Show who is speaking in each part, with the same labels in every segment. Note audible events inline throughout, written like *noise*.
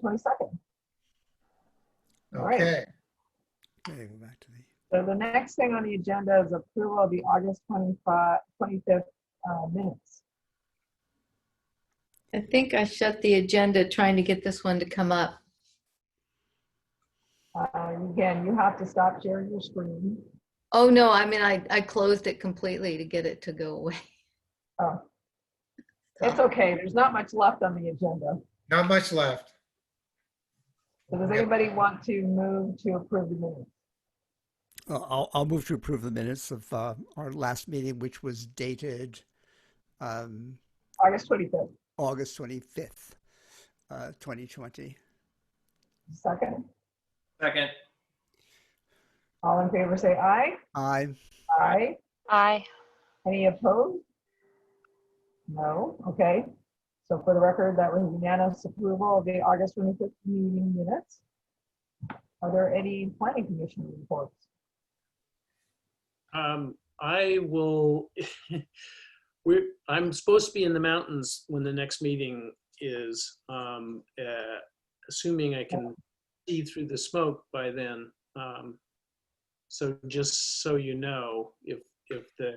Speaker 1: 22nd. Right.
Speaker 2: Okay,
Speaker 3: Okay, we're back to the,
Speaker 1: So the next thing on the agenda is approval of the August 25, 25th uh, minutes.
Speaker 4: I think I shut the agenda trying to get this one to come up.
Speaker 1: Uh, Again, you have to stop sharing your screen.
Speaker 4: Oh, no, I mean, I, I closed it completely to get it to go away. *laughs*
Speaker 1: Oh, It's okay, there's not much left on the agenda.
Speaker 2: not much left.
Speaker 1: So does anybody want to move to approve the minutes?
Speaker 3: uh, I'll, I'll move to approve the minutes of uh, our last meeting, which was dated um,
Speaker 1: August 25th,
Speaker 3: August 25th, uh, 2020.
Speaker 1: second.
Speaker 5: Second.
Speaker 1: All in favor, say aye.
Speaker 3: I,
Speaker 1: Aye.
Speaker 6: Aye.
Speaker 1: Any opposed? No, okay. So for the record, that was unanimous approval of the August 25th meeting minutes. Are there any planning commission reports?
Speaker 7: Um, I will, *laughs* we're, I'm supposed to be in the mountains when the next meeting is, um, uh, assuming I can see through the smoke by then. Um, so just so you know, if, if the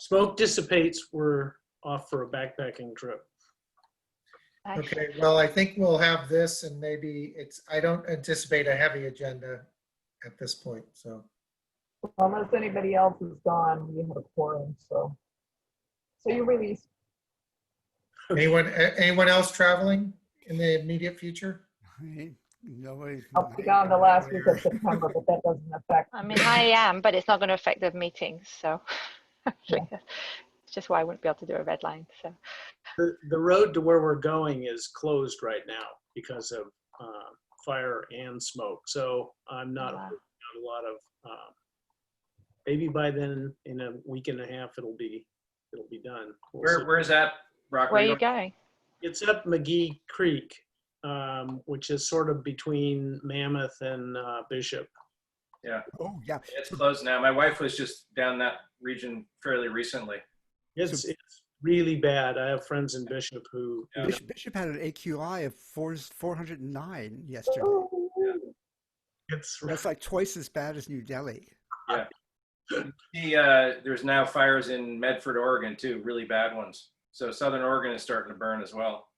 Speaker 7: smoke dissipates, we're off for a backpacking trip.
Speaker 6: Aye.
Speaker 2: Okay, well, I think we'll have this and maybe it's, I don't anticipate a heavy agenda at this point, so.
Speaker 1: Unless anybody else is gone, we have a quorum, so. So you release,
Speaker 2: Anyone, a- anyone else traveling in the immediate future?
Speaker 3: I- nobody's.
Speaker 1: I'll be gone the last week of September, but that doesn't affect.
Speaker 6: I mean, I am, but it's not going to affect the meetings, so. *laughs* It's just why I wouldn't be able to do a red line, so.
Speaker 7: The, the road to where we're going is closed right now because of, uh, fire and smoke. So I'm not
Speaker 6: Wow.
Speaker 7: not a lot of, um, maybe by then, in a week and a half, it'll be, it'll be done. We'll see.
Speaker 5: Where, where's that, Rock?
Speaker 6: Where are you going?
Speaker 7: It's up McGee Creek, um, which is sort of between Mammoth and uh, Bishop.
Speaker 3: Oh, yeah.
Speaker 5: It's closed now. My wife was just down that region fairly recently.
Speaker 7: It's, it's really bad. I have friends in Bishop who,
Speaker 5: Yeah.
Speaker 3: Bishop, Bishop had an AQI of four, 409 yesterday.
Speaker 1: Ooh,
Speaker 7: *laughs* it's,
Speaker 3: That's like twice as bad as New Delhi.
Speaker 5: The, uh, there's now fires in Medford, Oregon too, really bad ones. So Southern Oregon is starting to burn as well.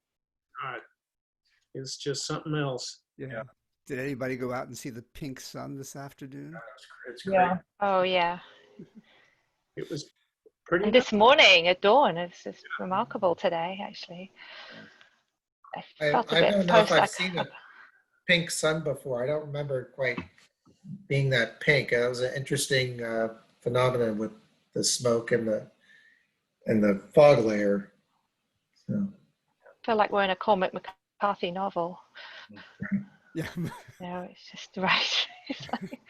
Speaker 7: it's just something else.
Speaker 5: Yeah.
Speaker 3: Did anybody go out and see the pink sun this afternoon?
Speaker 5: It's crazy.
Speaker 1: Yeah,
Speaker 6: Oh, yeah.
Speaker 7: It was pretty,
Speaker 6: And this morning at dawn, it's just remarkable today, actually. I
Speaker 2: I,
Speaker 6: felt a
Speaker 2: I
Speaker 6: bit
Speaker 2: don't know if I've
Speaker 6: post-
Speaker 2: seen a pink sun before. I don't remember it quite being that pink. It was an interesting uh, phenomenon with the smoke and the, and the fog layer. So,
Speaker 6: I feel like we're in a Cormac McCarthy novel.
Speaker 3: Yeah. *laughs*
Speaker 6: You know, it's just *laughs* right. It's like,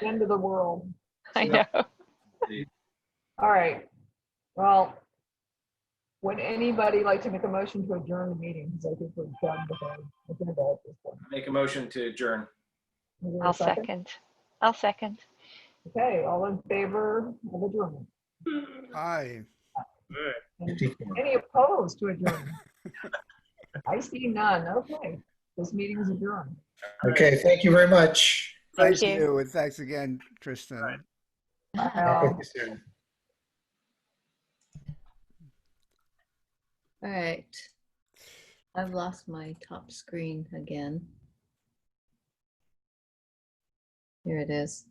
Speaker 1: the end of the world.
Speaker 6: I know.
Speaker 1: All right. Well, would anybody like to make a motion to adjourn the meeting? Because I think we're done with our agenda at this point.
Speaker 5: Make a motion to adjourn.
Speaker 1: Is there a
Speaker 6: I'll second. I'll second.
Speaker 1: Okay, all in favor of adjournment?
Speaker 3: Hi.
Speaker 1: And
Speaker 2: 54.
Speaker 1: Any opposed to adjournment? I see none. Okay, this meeting is adjourned.
Speaker 2: Okay, thank you very much.
Speaker 6: Thank
Speaker 3: Thank
Speaker 6: you.
Speaker 3: you. And thanks again, Tristan.
Speaker 7: All right.
Speaker 1: Bye,
Speaker 2: Talk
Speaker 1: all.
Speaker 2: with you soon.
Speaker 4: All right. I've lost my top screen again. Here it is.